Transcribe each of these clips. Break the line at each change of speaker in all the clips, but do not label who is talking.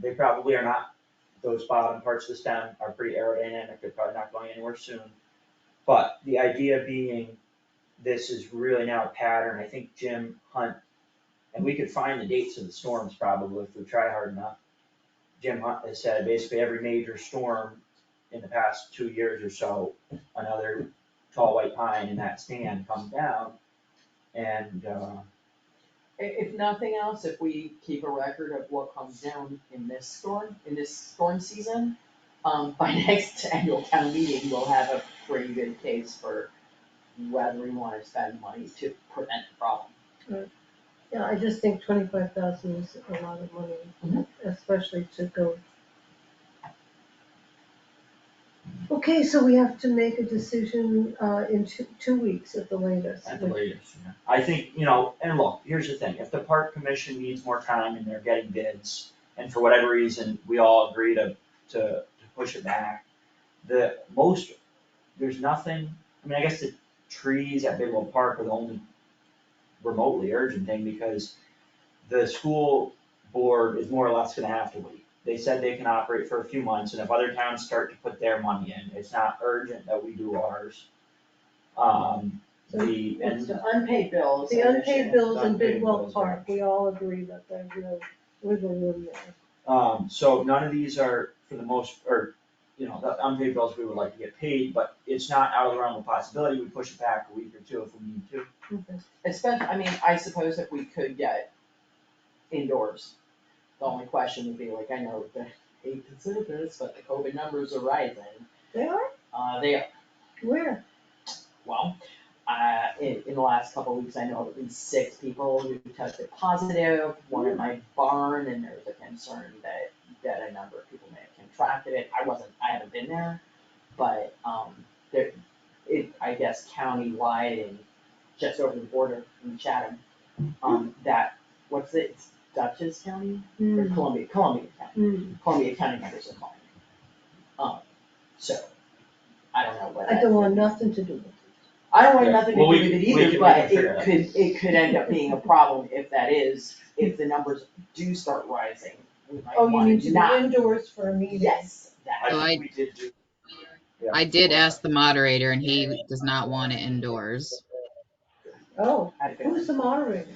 they probably are not, those bottom parts of the stem are pretty aerodynamic, they're probably not going anywhere soon. But the idea being, this is really now a pattern, I think Jim Hunt, and we could find the dates of the storms probably if we try hard enough. Jim Hunt has said basically every major storm in the past two years or so, another tall white pine in that stand comes down. And, uh,
I- If, nothing else, if we keep a record of what comes down in this storm, in this storm season, um, by next annual town meeting, we'll have a pretty good case for whether we wanna spend money to prevent the problem.
Yeah, I just think twenty-five thousand is a lot of money,
Mhm.
especially to go. Okay, so we have to make a decision, uh, in two, two weeks at the latest.
At the latest, yeah. I think, you know, and look, here's the thing, if the park commission needs more time and they're getting bids, and for whatever reason, we all agree to, to, to push it back, the most, there's nothing, I mean, I guess the trees at Bidwell Park are the only remotely urgent thing, because the school board is more or less gonna have to wait. They said they can operate for a few months, and if other towns start to put their money in, it's not urgent that we do ours. Um, the, and
It's the unpaid bills.
The
and
unpaid
shit.
bills in
Unpaid
Bidwell
bills,
Park,
yeah.
we all agree that there's no wiggle room there.
Um, so none of these are for the most, or, you know, the unpaid bills we would like to get paid, but it's not out of the realm of possibility, we push it back a week or two if we need to.
Okay.
Especially, I mean, I suppose if we could get indoors, the only question would be like, I know the hate to say this, but the COVID numbers are rising.
They are,
Uh, they
where?
well, uh, in, in the last couple of weeks, I know of at least six people who tested positive, one in my barn, and there was a concern that, that a number of people may have contracted it, I wasn't, I haven't been there, but, um, there, it, I guess countywide and just over the border in Chatham, um, that, what's it, it's Dutchess County, or
Hmm,
Columbia, Columbia County,
hmm.
Columbia County members of mine. Um, so, I don't know what.
I don't want nothing to do with it.
I don't want
Yeah,
nothing to do
well, we
with
can- we
it
can- we
either,
can
but
figure it
it
out.
could, it could end up being a problem if that is, if the numbers do start rising, we might
Oh, you
wanna
need to
not-
be indoors for a meeting.
Yes, that,
I think
Right.
we did do.
I did ask the moderator and he does not want it indoors.
Oh,
I feel.
who's the moderator?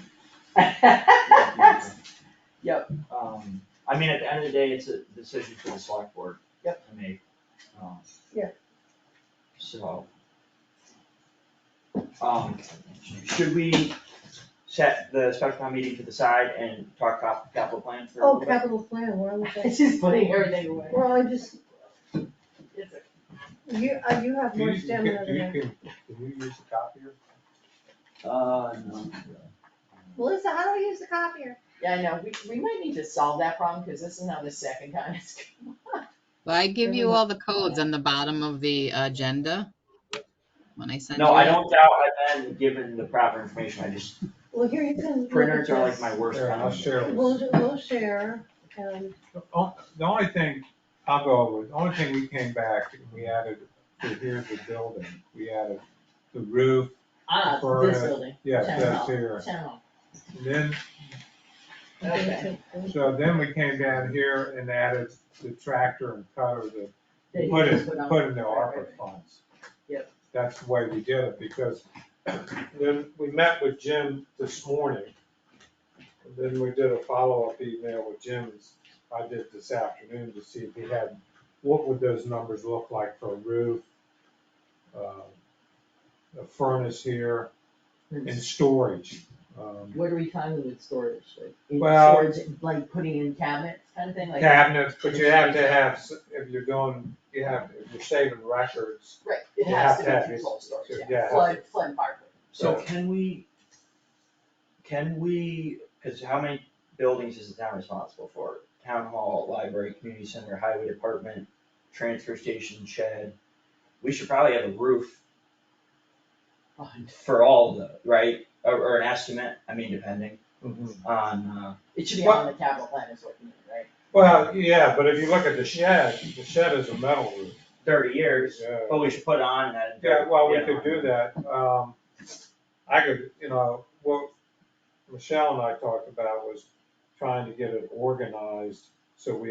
Yep.
Um, I mean, at the end of the day, it's a decision for the select board.
Yep.
To make, um.
Yeah.
So. Um, should we set the special town meeting to the side and talk cap- capital plan for a
Oh,
little bit?
capital plan, where was I?
It's just putting everything away.
Well, I just,
It's a-
you, uh, you have
Do
more
you, you can,
stamina
do
than I.
you can, can you use the copier?
Uh, no.
Melissa, how do I use the copier?
Yeah, I know, we, we might need to solve that problem, cause this is now the second time it's.
Well, I give you all the codes on the bottom of the agenda when I send you.
No, I
it.
don't doubt I've been given the proper information, I just,
Well, here you can. look at
printers are like
this.
my worst
Here, I'll
enemy.
share
We'll,
this.
do- we'll share, and,
The on- the only thing, I'll go over, the only thing we came back, and we added, to here's the building, we added the roof,
Ah,
For,
this
uh,
building,
yes,
Town
that's
hall.
here.
town,
And Then,
okay,
so then we came down here and added the tractor and cutter that
That you
Put
just
in,
put on-
put in the
right, right,
ARPA
right.
funds.
Yep.
That's the way we did it, because then we met with Jim this morning. And then we did a follow-up email with Jim, I did this afternoon, to see if he had, what would those numbers look like for a roof? um, A furnace here and storage. um,
What are we talking with storage, like, in
Well-
storage, like putting in cabinets kind of thing, like?
Cabinets, but you have to have, s- if you're going, you have, if you're saving records,
Right, it
You
has
have
to
to have
be
it.
controlled storage,
Yeah,
yeah,
yeah.
flood, flood and fire.
So
Right.
can we, can we, cause how many buildings is the town responsible for? Town hall, library, community center, highway department, transfer station, shed, we should probably have a roof for all of those, right? Or, or an estimate, I mean, depending on, uh,
It should be on the capital plan is what you mean, right?
Well, yeah, but if you look at the shed, the shed is a metal roof.
thirty years,
Yeah.
but we should put on that.
Yeah, well, we
yeah.
could do that, um, I could, you know, what Michelle and I talked about was trying to get it organized, so we